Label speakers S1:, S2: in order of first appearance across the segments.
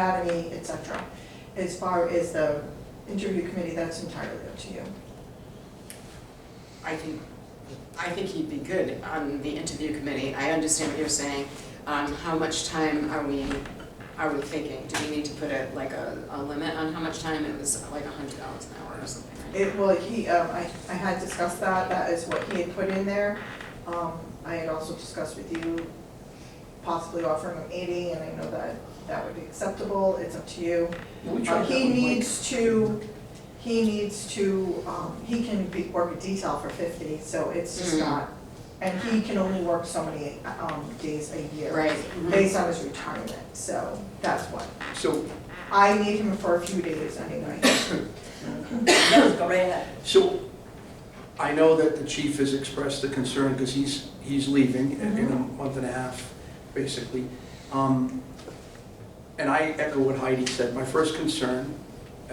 S1: academy, et cetera. As far as the interview committee, that's entirely up to you.
S2: I think, I think he'd be good on the interview committee. I understand what you're saying. Um, how much time are we, are we thinking? Do we need to put a, like a, a limit on how much time? It was like a hundred dollars an hour or something, right?
S1: It, well, he, um, I, I had discussed that, that is what he had put in there. Um, I had also discussed with you possibly offering him eighty, and I know that that would be acceptable, it's up to you.
S3: We
S1: Uh,
S3: tried that
S1: He
S3: with Mike.
S1: needs to, he needs to, um, he can be, work a detail for fifty, so it's just
S2: Mm.
S3: Mm-hmm.
S1: not, and he can only work so many, um, days a year.
S2: Right. mhm.
S1: Based on his retirement, so that's what,
S3: So,
S1: I need him for a few days anyway.
S3: so I know that the chief has expressed the concern because he's, he's leaving in in a
S1: Mm-hmm.
S3: month and a half, basically. Um, And I echo what Heidi said. My first concern,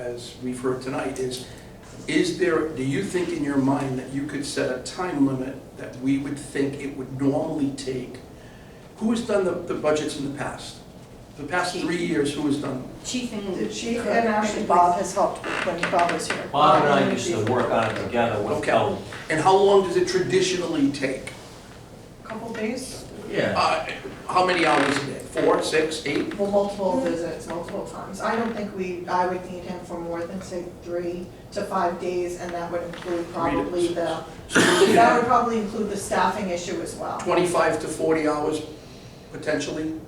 S3: as we've heard tonight, is, is there, do you think in your mind that you could set a time limit that we would think it would normally take? Who has done the, the budgets in the past? The past three years, who has done them?
S2: Chief
S1: The
S2: and,
S1: chief and actually Bob has helped when Bob was here.
S4: Bob and I used to work on it together with
S3: Okay.
S4: Kelly.
S3: And how long does it traditionally take?
S1: Couple days,
S4: Yeah.
S3: Uh, How many hours a day? Four, six, eight?
S1: well, multiple visits, multiple times. I don't think we, I would need him for more than, say, three to five days, and that would include probably the,
S3: So we're looking
S1: that would
S3: at
S1: probably include the staffing issue as well.
S3: 25 to 40 hours potentially?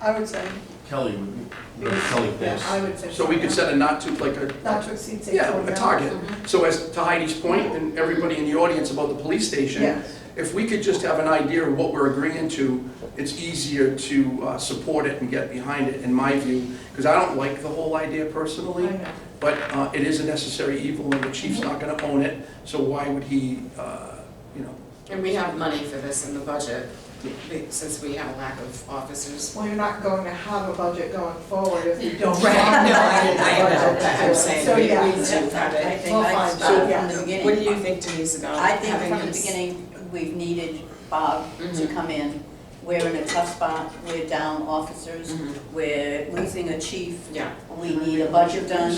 S1: I would say,
S4: Kelly would, would Kelly
S1: yeah,
S4: thinks.
S1: I would say.
S3: So we could
S1: yeah.
S3: set a not to, like
S1: Not
S3: a,
S1: to exceed, say,
S3: yeah,
S1: forty
S3: a
S1: hours. mm-hmm.
S3: target. So as to Heidi's point, and everybody in the audience about the police station,
S1: Yes,
S3: if we could just have an idea of what we're agreeing to, it's easier to uh, support it and get behind it, in my view, because I don't like the whole idea
S1: I
S3: personally.
S1: know.
S3: But uh, it is a necessary evil, and the chief's not gonna own it, so why would he, uh, you know?
S2: and we have money for this in the budget, be- since we have a lack of officers.
S1: Well, you're not going to have a budget going forward if you don't.
S2: Right,
S1: have a
S2: no, I,
S1: budget
S2: I know,
S1: to
S2: but
S1: do
S2: I'm
S1: it.
S2: saying,
S1: So,
S2: we
S1: yeah.
S2: need to have
S5: I
S2: it.
S5: think
S1: We'll
S5: I
S1: find
S2: out.
S5: started from
S1: Yeah.
S5: the
S2: What do
S5: beginning.
S2: you think Denise about
S5: I think Mm-hmm.
S2: having
S5: from the
S2: this?
S5: beginning, we've needed Bob to
S2: Mhm.
S5: come in. We're in a tough spot, we're down officers,
S2: Mhm.
S5: we're losing a chief,
S2: Yeah.
S5: we need a budget done.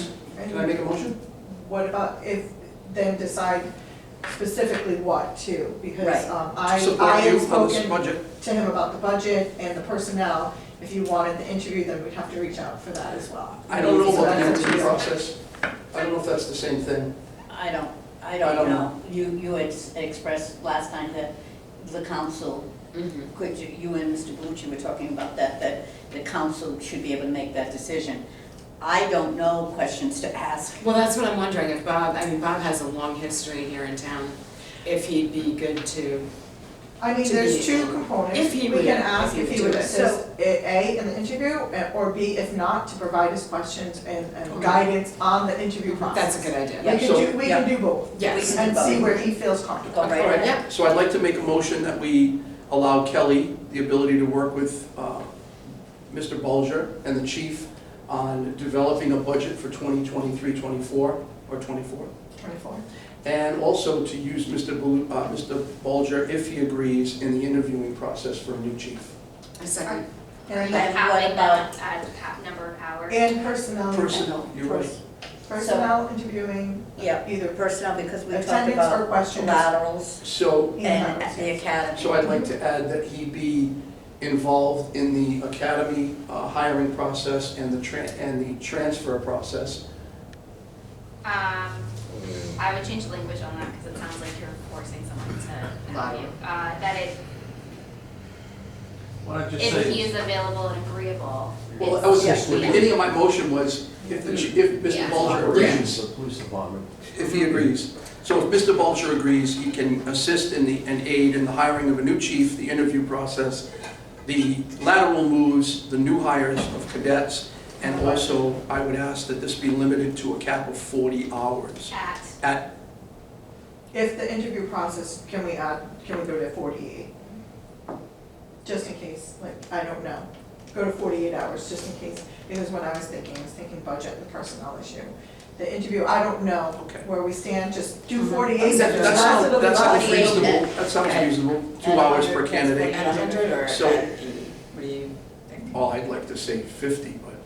S3: Can I make a motion?
S1: What about if, then decide specifically what to, because
S5: Right.
S1: um, I, I
S3: Support you
S1: had
S3: on this
S1: spoken
S3: budget?
S1: to him about the budget and the personnel. If you wanted the interview, then we'd have to reach out for that as well.
S3: I don't know
S1: So
S3: about the
S1: that's up to
S3: interview
S1: you.
S3: process. I don't know if that's the same thing.
S5: I don't, I
S3: I don't
S5: don't know. You, you had s- expressed last time that the council,
S2: Mhm.
S5: could, you you and Mr. Bellucci were talking about that, that the council should be able to make that decision. I don't know questions to ask.
S2: Well, that's what I'm wondering, if Bob, I mean, Bob has a long history here in town, if he'd be good to,
S1: I mean,
S2: to
S1: there's
S2: be-
S1: two components.
S2: if he
S1: We
S2: would-
S1: can ask if he would
S2: do it.
S1: assist, A, in the interview, eh, or B, if not, to provide us questions and and
S2: Okay.
S1: guidance on the interview
S2: that's a
S1: process.
S2: good idea.
S1: We
S3: So-
S1: can do, we can do both,
S2: Yes.
S1: and see where he feels comfortable.
S5: Go right ahead.
S2: Yeah.
S3: So I'd like to make a motion that we allow Kelly the ability to work with uh, Mr. Bulger and the chief on developing a budget for 2023, 24, or 24.
S1: Twenty-four.
S3: And also to use Mr. Bul- uh, Mr. Bulger, if he agrees, in the interviewing process for a new chief.
S2: A second.
S1: And
S5: Right.
S1: then-
S5: And
S6: How
S5: what
S6: many
S5: about-
S6: hours, uh, number of hours?
S1: and personnel.
S3: Person, you're right.
S1: Personnel interviewing,
S5: Yeah,
S1: either
S5: personnel, because we talked
S1: attendance or
S5: about
S1: questions.
S5: laterals
S3: So,
S5: and
S1: In-house.
S5: the academy.
S3: so I'd like to add that he be involved in the academy uh, hiring process and the tran, and the transfer process.
S6: Um, I would change the language on that because it sounds like you're forcing someone to
S2: Liar.
S6: interview. Uh, that it,
S4: Why don't you
S6: if he
S4: say,
S6: is available and agreeable.
S3: Well,
S6: it's-
S3: that was, the
S6: Yeah.
S3: beginning of my motion was if the, chi- if Mr.
S6: Yeah.
S3: Bulger agrees,
S4: operations of police department?
S3: if he agrees. So if Mr. Bulger agrees, he can assist in the, and aid in the hiring of a new chief, the interview process, the lateral moves, the new hires of cadets, and also I would ask that this be limited to a cap of 40 hours
S6: At,
S3: at
S1: If the interview process, can we add, can we go to forty-eight? Just in case, like, I don't know, go to forty-eight hours, just in case, because when I was thinking, I was thinking budget and personnel issue. The interview, I don't know
S3: Okay. Mm-hmm.
S1: where we stand, just do
S2: Mhm.
S1: forty-eight,
S3: That
S1: just
S3: that
S1: pass it
S3: sounds,
S1: over
S3: that sounds
S1: body.
S3: reasonable, that sounds reasonable, two hours per candidate.
S2: At a hundred or at,
S3: So-
S2: what do you think?
S3: All I'd like to say fifty,